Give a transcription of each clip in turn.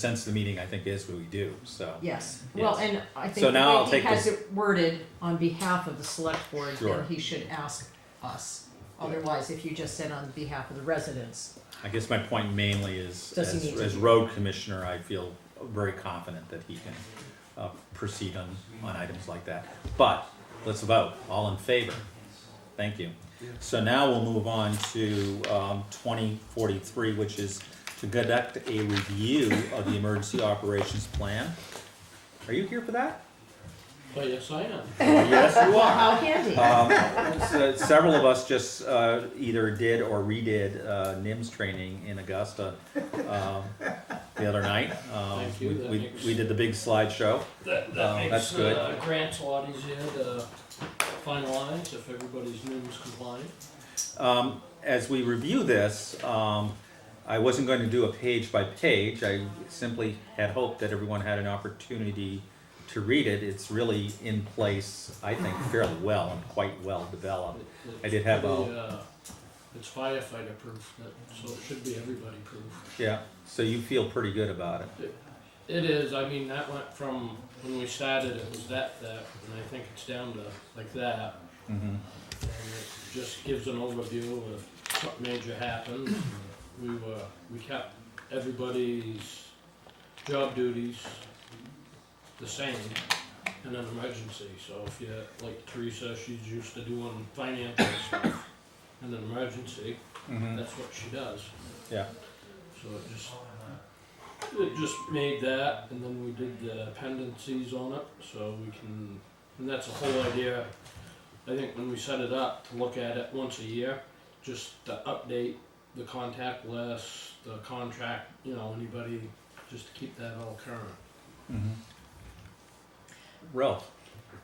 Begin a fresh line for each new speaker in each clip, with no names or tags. sense of the meeting, I think, is what we do, so.
Yes, well,
Yes.
and I
So
think
now I'll
the way he
take
has
this-
it worded on behalf of the select board,
Sure.
then he should ask us.
Yeah.
Otherwise, if you just said on behalf of the residents,
I guess my point mainly is,
Does he
as,
need to-
as road commissioner, I feel very confident that he can, uh, proceed on, on items like that. But, let's vote, all in favor, thank you. So now we'll move on to, um, twenty forty-three, which is to conduct a review of the emergency operations plan. Are you here for that?
Well, yes, I
Oh,
am.
Yes, you are.
how handy.
Um, s- Several of us just uh, either did or redid uh, NIMS training in Augusta um, the other night. Um,
Thank you,
we-
that
we-
makes-
We did the big slideshow.
That,
Oh, that's
that makes
good.
uh, grants a lot easier to finalize if everybody's NIMS compliant.
Um, As we review this, um, I wasn't going to do a page by page. I simply had hoped that everyone had an opportunity to read it. It's really in place, I think, fairly well and quite well developed.
It-
I did have
it's
a-
pretty, uh, It's firefighter proof, that- so it should be everybody proof.
Yeah, so you feel pretty good about it.
It is, I mean, that went from, when we started, it was that, that, and I think it's down to like that.
Mhm.
And it just gives an overview of what major happened. We were, we kept everybody's job duties the same in an emergency. So if you, like Teresa, she's used to doing finance and stuff in an emergency,
Mhm.
that's what she does.
Yeah.
So it just, it just made that, and then we did the appendices on it, so we can, and that's the whole idea. I think when we set it up, to look at it once a year, just to update the contact list, the contract, you know, anybody, just to keep that all current.
Mm-hmm. Ralph,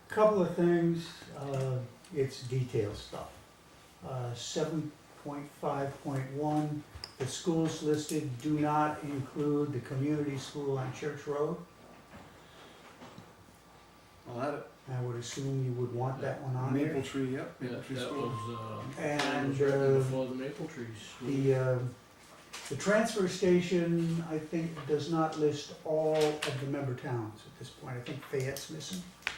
Couple of things, uh, it's detail stuff. Uh, seven point five point one, the schools listed do not include the community school on Church Road.
Well,
I would assume you would want that one
that,
on
maple
there.
tree, yep,
Yeah,
maple tree
that
school.
was, uh, that was
And,
written
uh,
before the maple trees.
the, uh, the transfer station, I think, does not list all of the member towns at this point. I think Fayette's missing. uh,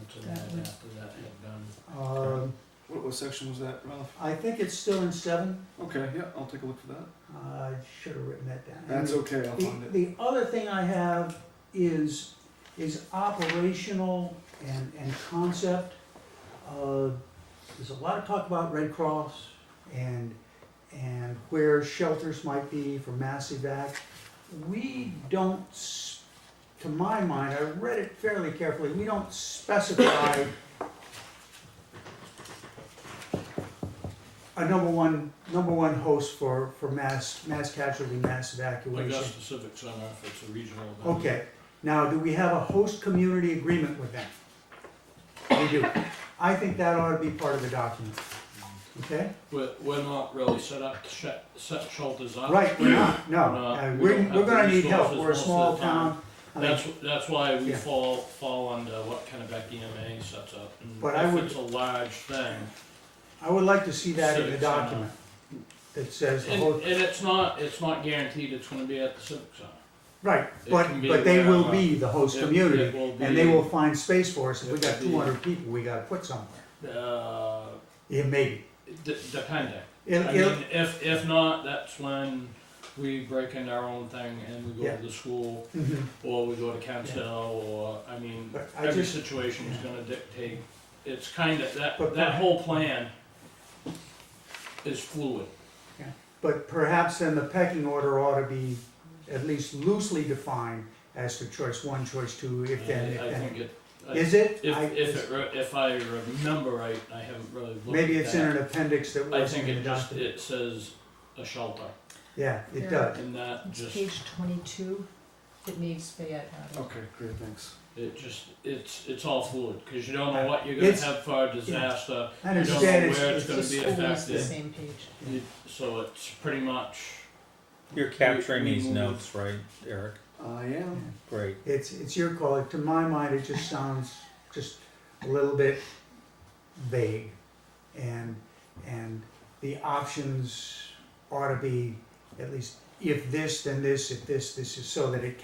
Until that, after that had done.
Um,
What, what section was that, Ralph?
I think it's still in seven.
Okay, yeah, I'll take a look for that.
Uh, I should have written that down.
That's okay, I'll
The,
find it.
the other thing I have is, is operational and, and concept. Uh, There's a lot of talk about Red Cross and, and where shelters might be for mass evac. We don't, s- to my mind, I read it fairly carefully, we don't specify a number one, number one host for, for mass, mass casualty, mass evacuation.
Augusta Civic Center, if it's a regional event.
Okay, now, do we have a host community agreement with them? We do. I think that ought to be part of the document, okay?
We're, we're not really set up to set, set shelters up.
Right, we're not, no, Uh,
No, we
we're,
don't
we're gonna
have the
need help,
resources
we're a
most of
small
the time.
town. I mean,
That's, that's why we
Yeah.
fall, fall under what Kennebec EMA sets up. And
But I
if
would-
It's a large thing.
I would like to see that in the
Civics, uh,
document, that says the
And,
whole,
and it's not, it's not guaranteed it's gonna be at the Civic Center.
right,
it
but,
can be uh,
but they will
wherever.
be the host
It- it
community,
will
and they
be-
will find space for us, if we
it
got
will be-
two hundred people, we gotta put somewhere.
Uh,
Yeah, maybe,
d- depending.
it'll,
I
it'll,
mean, if, if not, that's when we break into our own thing and we go
Yeah.
to the school,
mhm.
or we go to council, or, I mean,
But I
every
just-
situation is gonna dictate, it's kinda, that,
But
that
perha-
whole plan is fluid.
But perhaps then the pecking order ought to be at least loosely defined as to choice one, choice two, if then,
I- I
if then.
think it, I-
Is it?
if,
I-
if it, re- if I remember right, I haven't really looked at that.
Maybe it's in an appendix that
I think
wasn't in the
it just,
document.
it says a shelter,
Yeah, it does.
and that
It's
just,
page twenty-two, it needs Fayette
Oh,
added.
Okay, great, thanks.
it just, it's, it's all fluid, cause you don't know what you're gonna
Uh, It's-
have for a disaster.
And
You don't
instead,
know
it's,
where it's
it's-
gonna
The
be
school is the
affected.
same page.
You- So it's pretty much,
you're capturing
We- we
these
move-
notes, right, Eric?
I am.
Great.
it's, it's your call. To my mind, it just sounds just a little bit vague. And, and the options ought to be at least, if this, then this, if this, this is, so that it